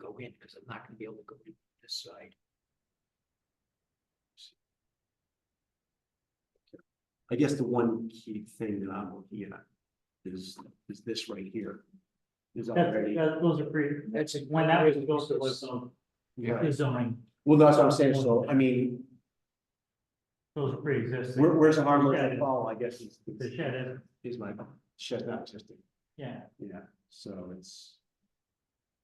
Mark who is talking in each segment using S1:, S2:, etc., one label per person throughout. S1: go in, because I'm not gonna be able to go in this side. I guess the one key thing that I'm looking at is, is this right here. Is already.
S2: That's, those are pretty,
S1: That's.
S2: when that was built, it was um,
S1: Yeah,
S2: the zoning,
S1: well, that's what I'm saying, so, I mean,
S2: those are pre-existing,
S1: where, where's the harm of that fall, I guess, is,
S2: the shed is,
S1: is my, shut not existing,
S2: yeah.
S1: yeah, so it's.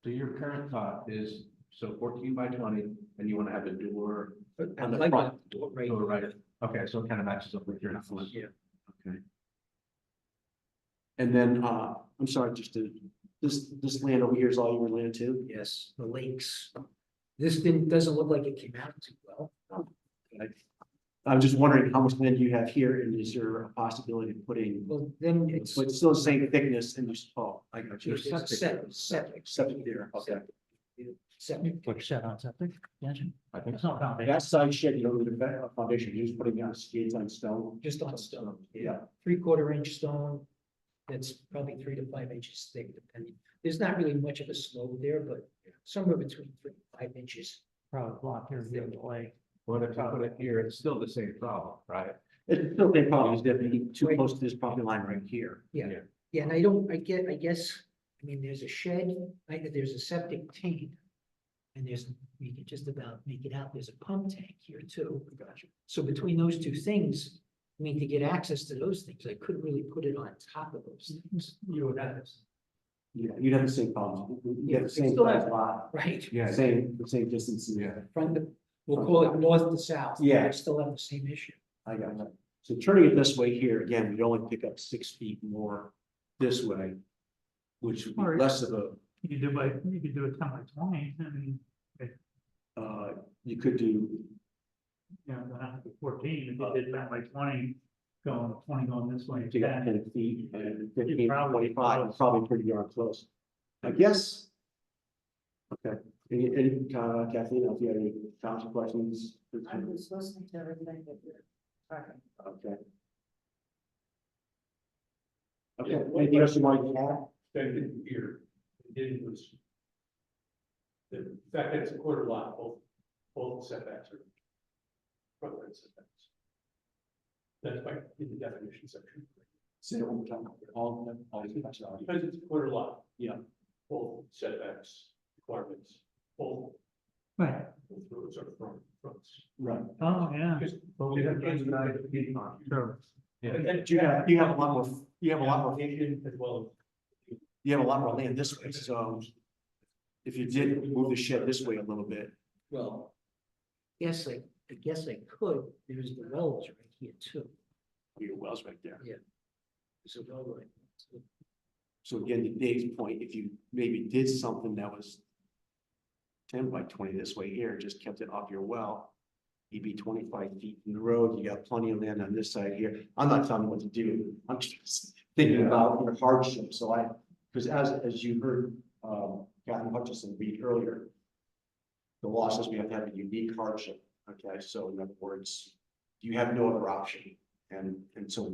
S3: So your current thought is, so fourteen by twenty, and you wanna have a door,
S1: On
S3: On the
S1: the front,
S3: front.
S1: right,
S3: door right, okay, so it kind of matches up with your house.
S1: yeah, okay. And then, uh, I'm sorry, just to, this, this land over here is all your land too? Yes, the lakes. This didn't, doesn't look like it came out too well. I'm just wondering how much land you have here, and is there a possibility of putting? Well, then it's. But it's still the same thickness in this, oh, I got you.
S3: It's septic.
S1: Septic, septic. Septic there, okay. Septic.
S2: Quick shed on septic, yeah,
S3: I think
S2: it's not foundation,
S1: That side shed, you don't need a fa- a foundation, you're just putting down skids on stone. Just on stone. Yeah.
S4: three quarter inch stone. That's probably three to five inches thick depending. There's not really much of a slope there, but somewhere between three and five inches.
S2: probably block here, the other way.
S3: But if you put it here, it's still the same problem, right?
S1: It's still a problem, it's definitely too close to this property line right here.
S4: Yeah, and I don't, I get, I guess, I mean, there's a shed, I, there's a septic tank. And there's, you can just about make it out, there's a pump tank here too. Gotcha. So between those two things, I mean, to get access to those things, I couldn't really put it on top of those
S5: Mm-hmm.
S4: things.
S2: You would have this.
S1: Yeah, you'd have the same problem, you have the
S4: Yeah,
S1: same
S4: it's still
S1: size lot,
S4: Right,
S3: Yeah,
S1: same, the same distance.
S3: yeah.
S4: from the, we'll call it north to south. but
S1: Yeah.
S4: I Still have the same issue.
S1: I got it. So turning it this way here, again, we'd only pick up six feet more this way, which would
S2: Or-
S1: be less of a,
S2: You could do by, you could do a ten by twenty, and,
S1: uh, you could do,
S2: you know, then after fourteen, if you did that by twenty, going, twenty going this way,
S1: pick
S2: then
S1: up ten feet and fifteen,
S2: probably-
S1: twenty-five, it's probably pretty darn close. I guess. Okay, any, any, uh, Kathleen, if you have any comments or questions?
S5: I was listening to everything that you're talking.
S1: Okay. Okay, anything else you might add?
S6: Second here, it was. The fact that it's a quarter lot, both, both setbacks are. Front yard setbacks. That's by, in the definition section,
S1: Say it one more time. All of them, all these questions are-
S6: because it's a quarter lot.
S1: Yeah.
S6: Both setbacks, requirements, both,
S2: Right,
S6: both roads are front, fronts.
S1: Right.
S2: oh, yeah.
S6: Because
S2: But
S6: we have to deny the deed.
S2: Sure.
S3: Yeah.
S1: But You have, you have a lot more, you have a lot more,
S6: Application as well.
S1: you have a lot more land this way, so. If you did move the shed this way a little bit,
S4: Well. Yes, I, I guess I could, there's the wells right here too,
S1: your well's right there.
S4: there's a well right. there, too.
S1: So again, to Dave's point, if you maybe did something that was. Ten by twenty this way here, just kept it off your well. You'd be twenty-five feet from the road, you got plenty of land on this side here, I'm not telling you what to do, I'm just thinking about your hardship, so I. Because as, as you heard, um, Captain Hutchison read earlier. The law says we have to have a unique hardship, okay, so in other words, you have no other option, and, and so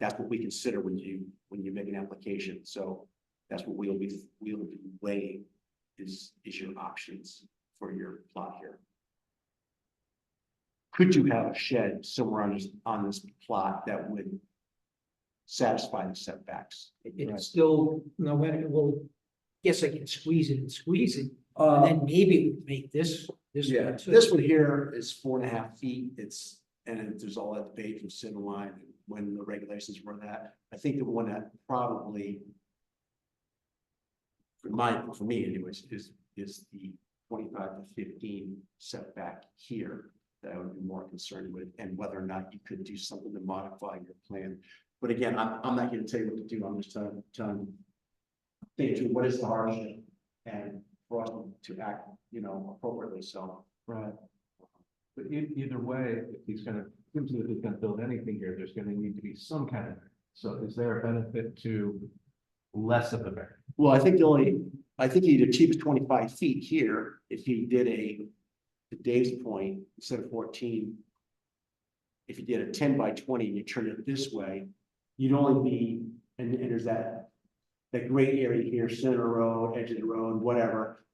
S1: that's what we consider when you, when you make an application, so that's what we'll be, we'll be weighing is, is your options for your plot here. Could you have a shed somewhere on this, on this plot that would satisfy the setbacks?
S4: It-
S1: Right.
S4: It's still, no matter, well, yes, I can squeeze it and squeeze it, and then maybe it would make this, this
S1: Uh, Yeah,
S4: one too.
S1: this one here is four and a half feet, it's, and it- there's all that debate from center line, and when the regulations were that, I think the one that probably. For my, for me anyways, is, is the twenty-five to fifteen setback here that I would be more concerned with, and whether or not you could do something to modify your plan. But again, I'm, I'm not gonna tell you what to do, I'm just telling, telling. Think through what is the hardship, and for us to act, you know, appropriately, so.
S3: Right. But e- either way, if he's gonna, seems as if he's gonna build anything here, there's gonna need to be some kind of, so is there a benefit to less of a variance?
S1: Well, I think the only, I think he'd achieve twenty-five feet here if he did a, to Dave's point, instead of fourteen. If you did a ten by twenty and you turn it this way, you'd only be, and, and there's that. That gray area here, center road, edge of the road, whatever,